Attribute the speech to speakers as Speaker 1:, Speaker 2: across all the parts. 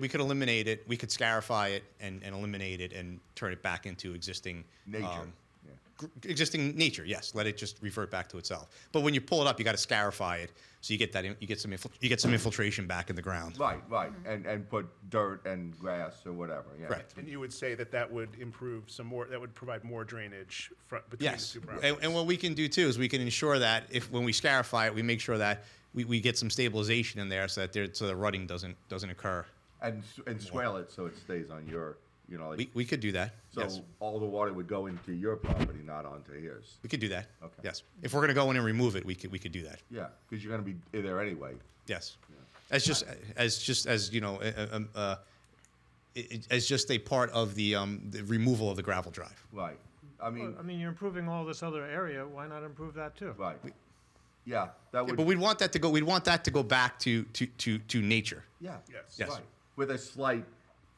Speaker 1: We could eliminate it. We could scarify it and, and eliminate it and turn it back into existing
Speaker 2: Nature.
Speaker 1: um,
Speaker 2: Yeah.
Speaker 1: gr- existing nature. Yes, let it just revert back to itself. But when you pull it up, you got to scarify it so you get that in- you get some infil- you get some infiltration back in the ground.
Speaker 2: Right, right, and and put dirt and grass or whatever. Yeah.
Speaker 1: Correct.
Speaker 3: And you would say that that would improve some more, that would provide more drainage fro- between the
Speaker 1: Yes,
Speaker 3: two
Speaker 1: and,
Speaker 3: properties?
Speaker 1: and what we can do too is we can ensure that if when we scarify it, we make sure that we, we get some stabilization in there so that there, so the rutting doesn't doesn't occur.
Speaker 2: And s- and swale it so it stays on your, you know, like,
Speaker 1: We, we could do that.
Speaker 2: so
Speaker 1: yes,
Speaker 2: all the water would go into your property, not onto his.
Speaker 1: we could do that.
Speaker 2: Okay.
Speaker 1: Yes, if we're gonna go in and remove it, we could we could do that.
Speaker 2: Yeah, because you're going to be there anyway.
Speaker 1: Yes, as just as just as you know, uh, um, uh, it- it- as just a part of the um, the removal of the gravel drive.
Speaker 2: Right. I mean,
Speaker 4: Well, I mean, you're improving all this other area, why not improve that too?
Speaker 2: right. yeah, that would.
Speaker 1: But we'd want that to go. We'd want that to go back to to to, to nature.
Speaker 2: yeah.
Speaker 3: Yes.
Speaker 1: Yes.
Speaker 2: Right. With a slight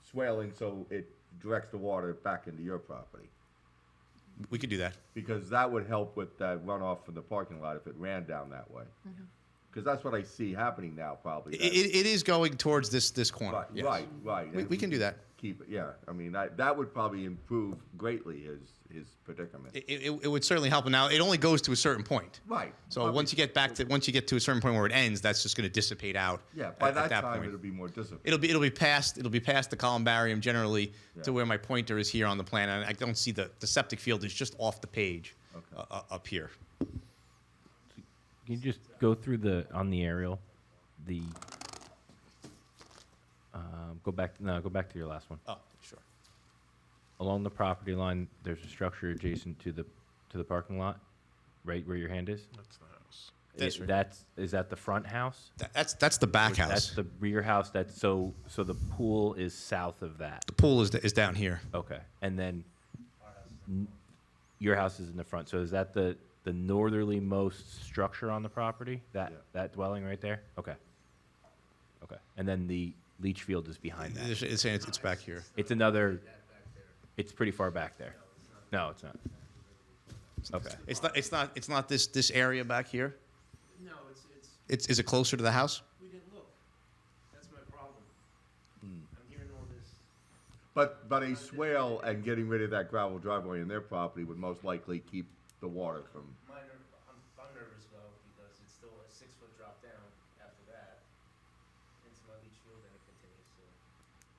Speaker 2: swaling, so it directs the water back into your property.
Speaker 1: We could do that.
Speaker 2: because that would help with that runoff from the parking lot if it ran down that way. Because that's what I see happening now, probably.
Speaker 1: It, it, it is going towards this this
Speaker 2: That-
Speaker 1: corner.
Speaker 2: right,
Speaker 1: yes.
Speaker 2: right, right.
Speaker 1: We,
Speaker 2: and
Speaker 1: we can do that.
Speaker 2: Keep it, yeah. I mean, that that would probably improve greatly his his predicament.
Speaker 1: It, it, it would certainly help. Now it only goes to a certain point.
Speaker 2: right.
Speaker 1: So once you get back to once you get to a certain point where it ends, that's just going to dissipate out.
Speaker 2: yeah, by
Speaker 1: at-
Speaker 2: that,
Speaker 1: at that
Speaker 2: time
Speaker 1: point.
Speaker 2: it'll be more disciplined.
Speaker 1: it'll be it'll be past it'll be past the columbarium generally
Speaker 2: Yeah.
Speaker 1: to where my pointer is here on the plan, and I don't see the the septic field is just off the page
Speaker 2: Okay.
Speaker 1: uh, uh, up here.
Speaker 5: Can you just go through the on the aerial, the um, go back no go back to your last one.
Speaker 1: Oh, sure.
Speaker 5: Along the property line, there's a structure adjacent to the to the parking lot, right where your hand is.
Speaker 3: That's the house.
Speaker 1: That's
Speaker 5: I-
Speaker 1: right.
Speaker 5: that's is that the front house?
Speaker 1: That, that's that's the back house.
Speaker 5: That's the rear house. That's so so the pool is south of that.
Speaker 1: the pool is is down here.
Speaker 5: Okay, and then n- your house is in the front. So is that the the northerly most structure on the property? That
Speaker 2: Yeah.
Speaker 5: that dwelling right there? Okay. Okay, and then the leach field is behind that.
Speaker 1: It's, it's, it's it's back here.
Speaker 5: It's another. It's pretty far back there. No, it's not. Okay.
Speaker 1: It's not it's not it's not this this area back here.
Speaker 6: No, it's, it's,
Speaker 1: It's is it closer to the house?
Speaker 6: we didn't look. That's my problem.
Speaker 2: Hmm.
Speaker 6: I'm hearing all this.
Speaker 2: But but a swale and getting rid of that gravel driveway in their property would most likely keep the water from.
Speaker 6: My ner- I'm, I'm nervous though, because it's still a six-foot drop down after that into my leach field and it continues, so.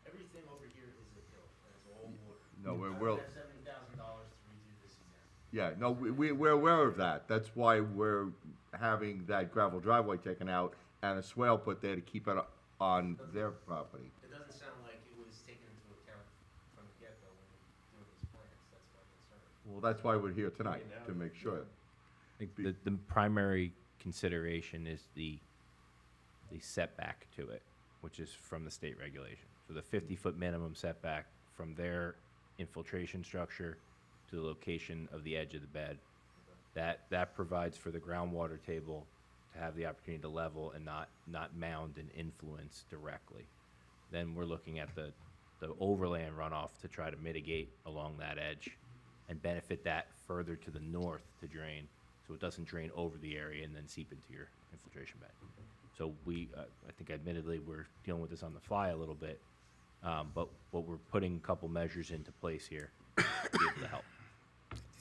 Speaker 6: Everything over here is a hill, and it's all water.
Speaker 2: No, we're-
Speaker 6: I
Speaker 2: we're-
Speaker 6: spent seventy thousand dollars to redo this again.
Speaker 2: Yeah, no, we, we, we're aware of that. That's why we're having that gravel driveway taken out and a swale put there to keep it on their property.
Speaker 6: It doesn't sound like it was taken into account from the get-go when doing these plans, that's my concern.
Speaker 2: Well, that's why we're here tonight, to make sure.
Speaker 5: I think the, the primary consideration is the the setback to it, which is from the state regulation. So the 50 foot minimum setback from their infiltration structure to the location of the edge of the bed. That that provides for the groundwater table to have the opportunity to level and not not mound and influence directly. Then we're looking at the the overland runoff to try to mitigate along that edge and benefit that further to the north to drain so it doesn't drain over the area and then seep into your infiltration bed. So we, uh, I think admittedly, we're dealing with this on the fly a little bit, um, but, but we're putting a couple measures into place here to be able to help.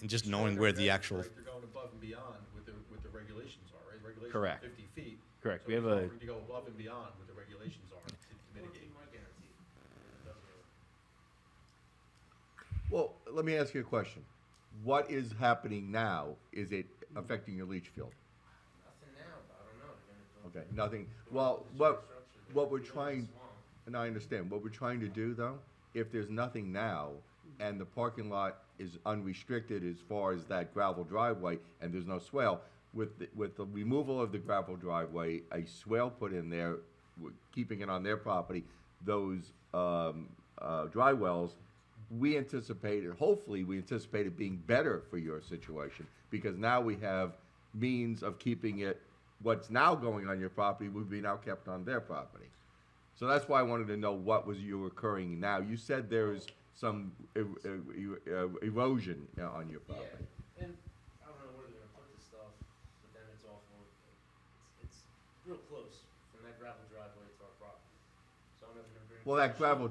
Speaker 1: And just knowing where the actual
Speaker 7: Right, They're going above and beyond with the, with the regulations are, right? Regulations are
Speaker 5: Correct.
Speaker 7: Fifty feet.
Speaker 5: Correct.
Speaker 7: So
Speaker 5: We have
Speaker 7: we're
Speaker 5: a-
Speaker 7: offering To go above and beyond what the regulations are to to mitigate.
Speaker 6: My guarantee, it doesn't work.
Speaker 2: Well, let me ask you a question. What is happening now? Is it affecting your leach field?
Speaker 6: Nothing now, but I don't know, they're gonna go
Speaker 2: Okay, nothing. Well, what, what we're trying, and I understand, what we're trying to do though, if there's nothing now and the parking lot is unrestricted as far as that gravel driveway and there's no swale, with, the- with the removal of the gravel driveway, a swale put in there, w- keeping it on their property, those, um, uh, dry wells, we anticipate, and hopefully, we anticipate it being better for your situation because now we have means of keeping it. What's now going on your property would be now kept on their property. So that's why I wanted to know what was you occurring now. You said there is some er- er- er- erosion you know, on your property.
Speaker 6: Yeah, and I don't know where they're gonna put this stuff, but then it's awful. It's, it's real close from that gravel driveway to our property. So I'm never gonna be
Speaker 2: Well, that gravel